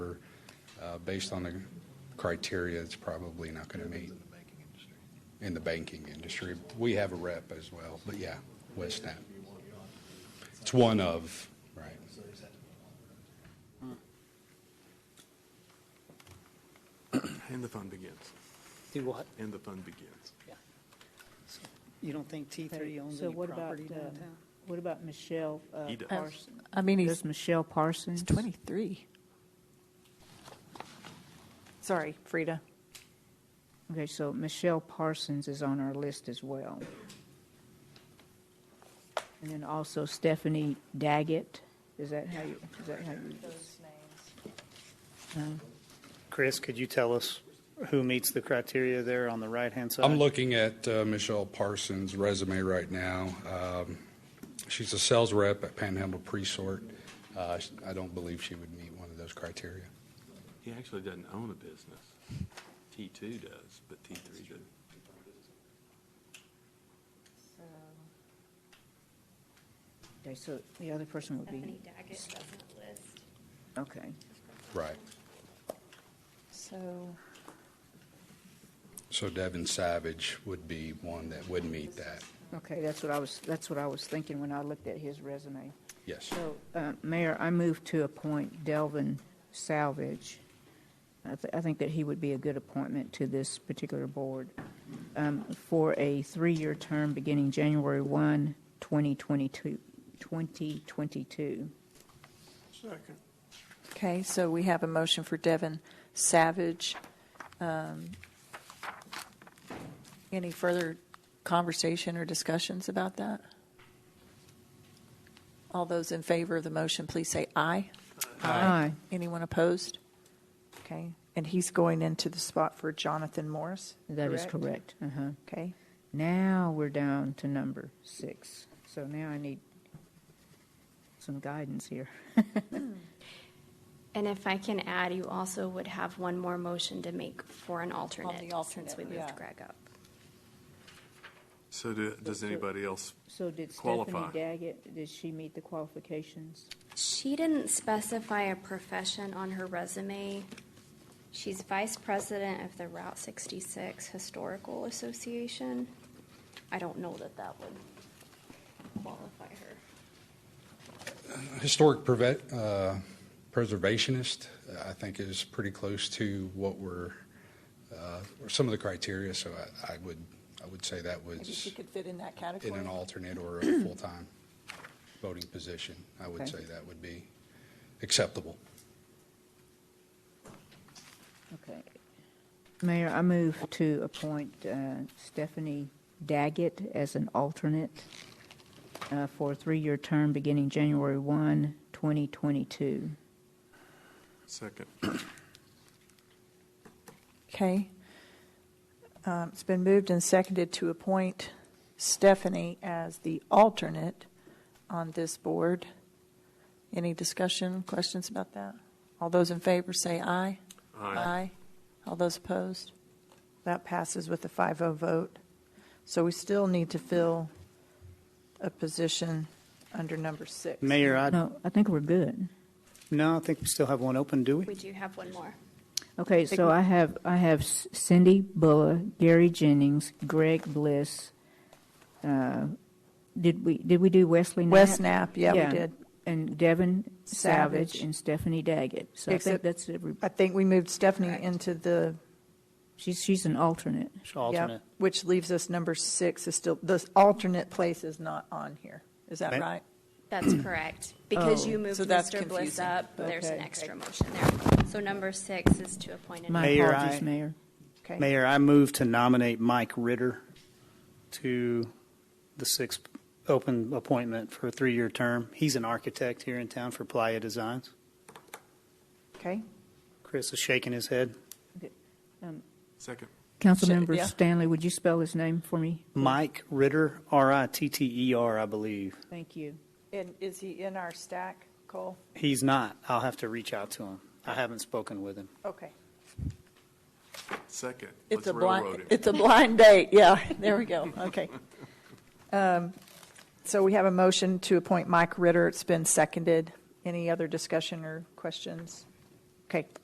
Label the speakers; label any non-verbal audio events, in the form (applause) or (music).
Speaker 1: uh, based on the criteria, it's probably not going to meet in the banking industry. We have a rep as well, but yeah, West Nap. It's one of, right.
Speaker 2: And the fun begins.
Speaker 3: Do what?
Speaker 2: And the fun begins.
Speaker 3: You don't think T3 owns
Speaker 4: So
Speaker 3: any
Speaker 4: what about,
Speaker 3: property
Speaker 4: uh,
Speaker 3: downtown?
Speaker 4: What about Michelle uh,
Speaker 2: He does.
Speaker 4: Parsons?
Speaker 5: I mean, he's
Speaker 4: There's Michelle Parsons.
Speaker 5: 23. Sorry, Frida.
Speaker 4: Okay, so Michelle Parsons is on our list as well. And then also Stephanie Daggett. Is that how you, is that how you?
Speaker 3: Chris, could you tell us who meets the criteria there on the right-hand side?
Speaker 1: I'm looking at uh, Michelle Parsons' resume right now. Um, She's a sales rep at Panhandle Presort. Uh, sh- I don't believe she would meet one of those criteria.
Speaker 2: He actually doesn't own a business. T2 does, but T3 doesn't.
Speaker 4: Okay, so the other person would
Speaker 6: Stephanie
Speaker 4: be,
Speaker 6: Daggett doesn't list.
Speaker 4: okay.
Speaker 1: Right.
Speaker 5: So,
Speaker 1: So Devin Savage would be one that would meet that.
Speaker 4: Okay, that's what I was, that's what I was thinking when I looked at his resume.
Speaker 1: Yes.
Speaker 4: So, uh, Mayor, I move to appoint Delvin Salvage. I th- I think that he would be a good appointment to this particular board um, for a three-year term beginning January 1, 2022. 2022.
Speaker 5: okay, so we have a motion for Devin Savage. Um, Any further conversation or discussions about that? All those in favor of the motion, please say aye.
Speaker 4: Aye.
Speaker 5: Anyone opposed? Okay, and he's going into the spot for Jonathan Morris?
Speaker 4: That is correct. Uh-huh.
Speaker 5: Okay,
Speaker 4: Now we're down to number six. So now I need some guidance here.
Speaker 6: And if I can add, you also would have one more motion to make for an alternate, since
Speaker 5: alternate,
Speaker 6: we
Speaker 5: yeah.
Speaker 6: moved Greg up.
Speaker 2: So do- does anybody else?
Speaker 4: So did Stephanie
Speaker 2: Qualify.
Speaker 4: Daggett, did she meet the qualifications?
Speaker 6: She didn't specify a profession on her resume. She's vice president of the Route 66 Historical Association. I don't know that that would qualify her.
Speaker 1: historic preve- uh, preservationist, uh, I think is pretty close to what we're, uh, or some of the criteria, so I, I would, I would say that
Speaker 5: maybe she
Speaker 1: was
Speaker 5: could fit in that
Speaker 1: in
Speaker 5: category?
Speaker 1: an alternate or a
Speaker 5: (clears throat)
Speaker 1: full-time voting position. I would
Speaker 4: Okay.
Speaker 1: say that would be acceptable.
Speaker 4: Okay. Mayor, I move to appoint uh, Stephanie Daggett as an alternate uh, for a three-year term beginning January 1, 2022.
Speaker 2: Second.
Speaker 5: Okay. Um, It's been moved and seconded to appoint Stephanie as the alternate on this board. Any discussion, questions about that? All those in favor say aye. Uh, All those opposed? That passes with a 5-0 vote. So we still need to fill a position under number six.
Speaker 3: Mayor, I,
Speaker 4: No, I think we're good.
Speaker 3: no, I think we still have one open, do we?
Speaker 6: We do have one more.
Speaker 4: Okay, so I have, I have C- Cindy Bulla, Gary Jennings, Greg Bliss. uh, Did we, did we do Wesley Knapp?
Speaker 5: West Knapp, yeah, we did.
Speaker 4: And Devin Savage
Speaker 5: Savage.
Speaker 4: and Stephanie Daggett. So I think
Speaker 5: Except-
Speaker 4: that's, every-
Speaker 5: I think we moved Stephanie
Speaker 4: Correct.
Speaker 5: into the
Speaker 4: she's, she's an alternate.
Speaker 3: It's
Speaker 5: Yep,
Speaker 3: Alternate.
Speaker 5: Which leaves us number six is still, the alternate place is not on here. Is that
Speaker 3: Ma-
Speaker 5: right?
Speaker 6: That's correct. Because you moved
Speaker 5: Oh, So that's
Speaker 6: Mr. Bliss
Speaker 5: confusing.
Speaker 6: up, there's an
Speaker 4: Okay.
Speaker 6: extra motion there. So number six is to appoint an
Speaker 4: My
Speaker 3: Mayor,
Speaker 4: apologies,
Speaker 3: I-
Speaker 4: Mayor.
Speaker 5: Okay.
Speaker 3: Mayor, I move to nominate Mike Ritter to the sixth open appointment for a three-year term. He's an architect here in town for Playa Designs.
Speaker 5: Okay.
Speaker 3: Chris is shaking his head.
Speaker 2: Second.
Speaker 4: Councilmember
Speaker 5: yeah.
Speaker 4: Stanley, would you spell his name for me?
Speaker 3: Mike Ritter, R-I-T-T-E-R, E I believe.
Speaker 4: Thank you.
Speaker 5: And is he in our stack, Cole?
Speaker 3: He's not. I'll have to reach out to him. I haven't spoken with him.
Speaker 5: Okay.
Speaker 2: Second.
Speaker 5: It's
Speaker 2: Let's
Speaker 5: a
Speaker 2: railroad
Speaker 5: blind,
Speaker 2: him.
Speaker 5: it's a blind date, yeah. (laughs) There we go, okay. (laughs) Um, So we have a motion to appoint Mike Ritter. It's been seconded. Any other discussion or questions? Okay,